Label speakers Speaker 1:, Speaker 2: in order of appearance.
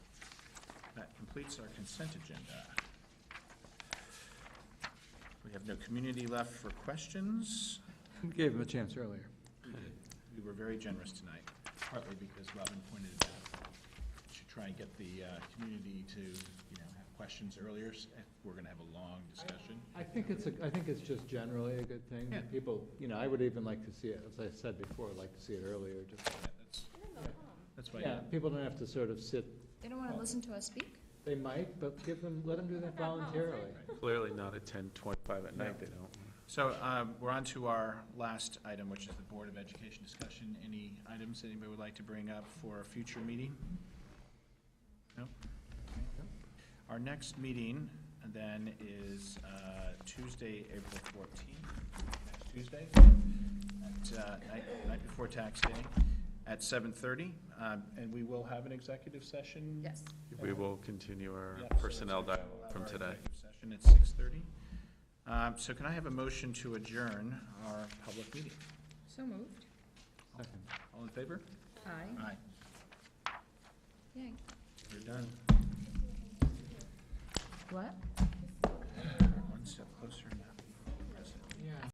Speaker 1: completes our consent agenda. We have no community left for questions.
Speaker 2: Gave him a chance earlier.
Speaker 1: We were very generous tonight, partly because Robin pointed it out. We Should try and get the uh, community to, you know, have questions earlier. S- eh, We're going to have a long discussion.
Speaker 2: I think it's, a. I think it's just generally a good thing.
Speaker 1: Yeah.
Speaker 2: People, you know, I would even like to see it, as I said before, I'd like to see it earlier, just,
Speaker 1: Yeah, That's that's why,
Speaker 2: yeah, people don't have to sort of sit,
Speaker 3: They don't want to listen to us speak?
Speaker 2: they might, but give them, let them do that voluntarily.
Speaker 4: Clearly not at ten twenty-five at night, they don't.
Speaker 1: So um, we're on to our last item, which is the Board of Education discussion. Any items anybody would like to bring up for a future meeting? No? Okay. Our next meeting then is uh, Tuesday, April 14th, next Tuesday, at, uh, night- night before tax day, at 7:30. Um, And we will have an executive session.
Speaker 3: Yes.
Speaker 4: We will continue our
Speaker 1: Yeah, so it's
Speaker 4: personnel
Speaker 1: gonna
Speaker 4: dialogue
Speaker 1: follow
Speaker 4: from
Speaker 1: our
Speaker 4: today.
Speaker 1: executive Session at six thirty. Um, so can I have a motion to adjourn our public meeting?
Speaker 3: So moved.
Speaker 2: Second.
Speaker 1: All in favor?
Speaker 3: Aye.
Speaker 1: Aye.
Speaker 3: Yay.
Speaker 1: You're done.
Speaker 3: What?